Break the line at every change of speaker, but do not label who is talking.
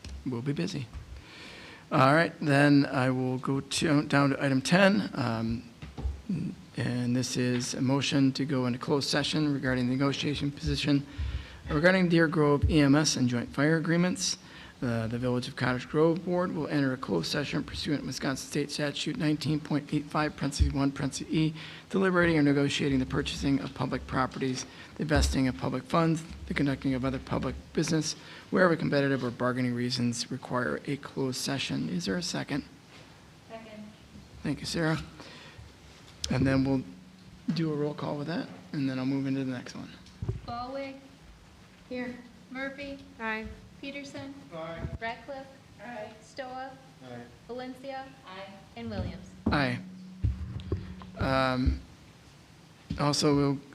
we'll be busy. All right, then I will go to, down to item 10. um, And this is a motion to go into closed session regarding the negotiation position regarding Deer Grove EMS and joint fire agreements. Uh, The Village of Cottage Grove Board will enter a closed session pursuant to Wisconsin State Statute 19.85, parentheses 1, parentheses E, deliberating or negotiating the purchasing of public properties, the investing of public funds, the conducting of other public business, wherever competitive or bargaining reasons require a closed session. Is there a second?
Second.
Thank you, Sarah. And then we'll do a roll call with that, and then I'll move into the next one.
Galway. Here. Murphy.
Aye.
Peterson. Aye. Ratcliffe. Aye. Stoa. Aye. Valencia. Aye. And Williams.
Aye. Um, Also, we'll